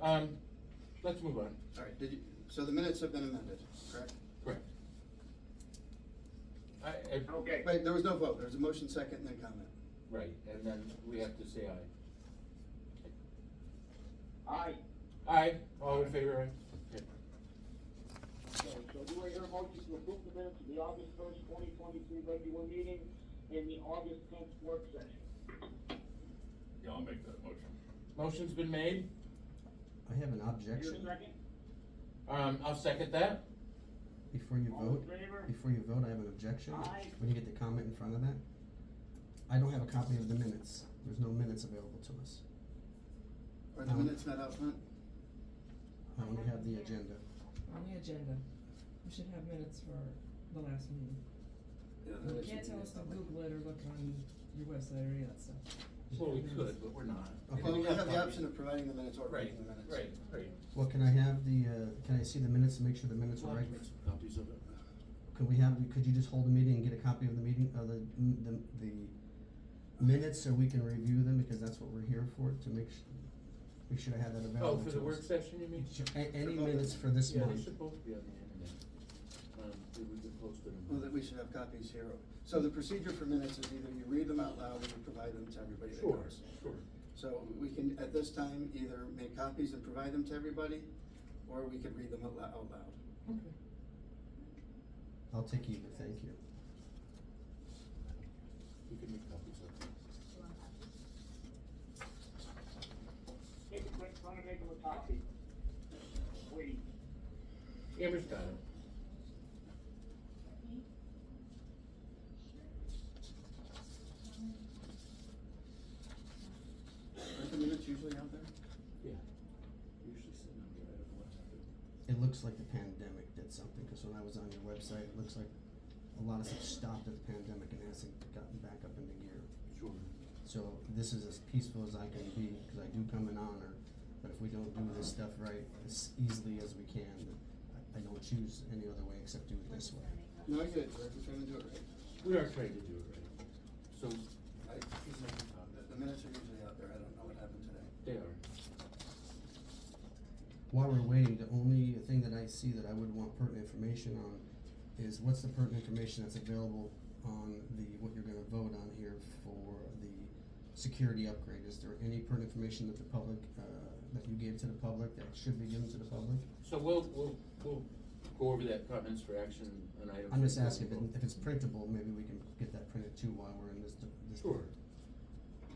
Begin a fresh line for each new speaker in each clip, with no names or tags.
Um, let's move on.
All right, did you, so the minutes have been amended, correct?
Correct. I, I-
Okay.
Wait, there was no vote, there was a motion second and then comment.
right, and then we have to say aye.
Aye.
Aye, all in favor, aye? Okay.
Okay, so do I hear a motion to approve the minutes of the August first, twenty twenty-three regular meeting and the August tenth work session?
Yeah, I'll make that motion.
Motion's been made,
I have an
Your
objection.
second?
um, I'll second that.
Before you
All in
vote,
favor?
before you vote, I have an objection.
Aye.
When you get the comment in front of that, I don't have a copy of the minutes. There's no minutes available to us.
Are the
Um,
minutes not out front?
I only have the agenda.
On the agenda, we should have minutes for the last meeting.
Yeah,
You can't tell us to Google it or look on your website or any of that stuff.
Well, we could, but we're not.
Okay.
Well, we have the
copies.
option of providing the minutes or
Right,
reading the minutes.
right, right.
Well, can I have the, uh, can I see the minutes and make sure the minutes are right?
Copies of it.
Could we have, could you just hold the meeting and get a copy of the meeting, uh, the, the, the minutes so we can review them, because that's what we're here for, to make su- we should have had that
Oh,
available to us.
for the work session, you mean?
A- any minutes for this
Yeah, they
month.
should both be on the internet. Um, we could post them.
Well, that we should have copies here. So the procedure for minutes is either you read them out loud or you provide them to everybody that
Sure,
goes.
sure.
So we can, at this time, either make copies and provide them to everybody, or we could read them out lou- out loud.
Okay.
I'll take either, thank you.
We can make copies of it.
Take a quick, trying to make them a copy. Please.
Amber's got it.
Aren't the minutes usually out there?
Yeah. Usually sitting on here, I don't know what happened.
It looks like the pandemic did something, because when I was on your website, it looks like a lot of stuff stopped at the pandemic and hasn't gotten back up into gear.
Sure.
So this is as peaceful as I can be, because I do come in honor, but if we don't do this stuff right as easily as we can, I, I don't choose any other way except do it this way.
No, I get it, Derek, we're trying to do it right.
We are trying to do it right. So,
I-
he's not on
The-
that.
The minutes are usually out there, I don't know what happened today.
They are.
While we're waiting, the only thing that I see that I would want pertinent information on is what's the pertinent information that's available on the, what you're gonna vote on here for the security upgrade? Is there any pertinent information that the public, uh, that you gave to the public that should be given to the public?
So we'll, we'll, we'll go over that comments for action and items.
I'm just
for
asking if, it-
approval.
if it's printable, maybe we can get that printed too while we're in this, de- this.
Sure.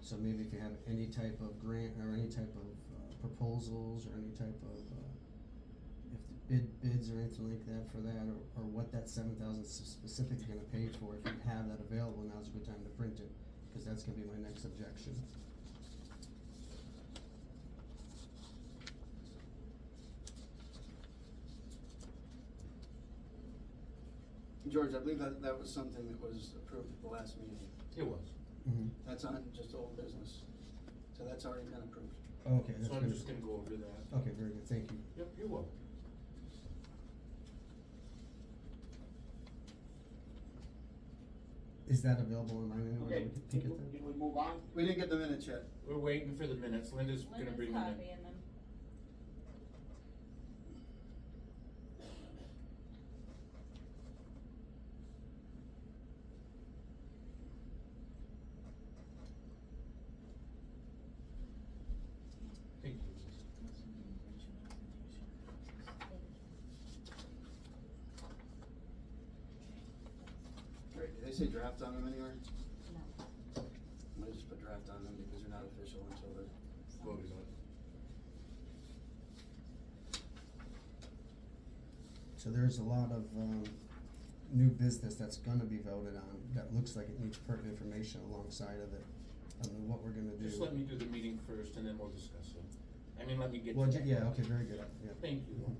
So maybe if you have any type of grant or any type of uh, proposals or any type of, uh, if the bid, bids or anything like that for that, or, or what that seven thousand specific is gonna pay for, if you have that available, now's a good time to print it, cause that's gonna be my next objection.
George, I believe that, that was something that was approved at the last meeting.
It was.
Mm-hmm.
That's on just old business, so that's already been approved.
Okay, that's
So I'm
good. Oh.
just gonna go over that.
Okay, very good, thank you.
Yep, you're welcome.
Is that available online anywhere that
Okay,
we can
can
pick it
we-
up?
can we move on?
We didn't get the minutes yet.
We're waiting for the minutes. Linda's gonna bring them in.
copying them.
Thank you.
Great, did they say draft on them anywhere?
No.
I'm gonna just put draft on them because they're not official until they're,
Voted on.
So there's a lot of, um, new business that's gonna be voted on, that looks like it needs pertinent information alongside of it, I mean, what we're gonna do.
Just let me do the meeting first and then we'll discuss it. I mean, let me get.
Well,
to
ju-
that.
yeah, okay, very good, yeah.
Thank you.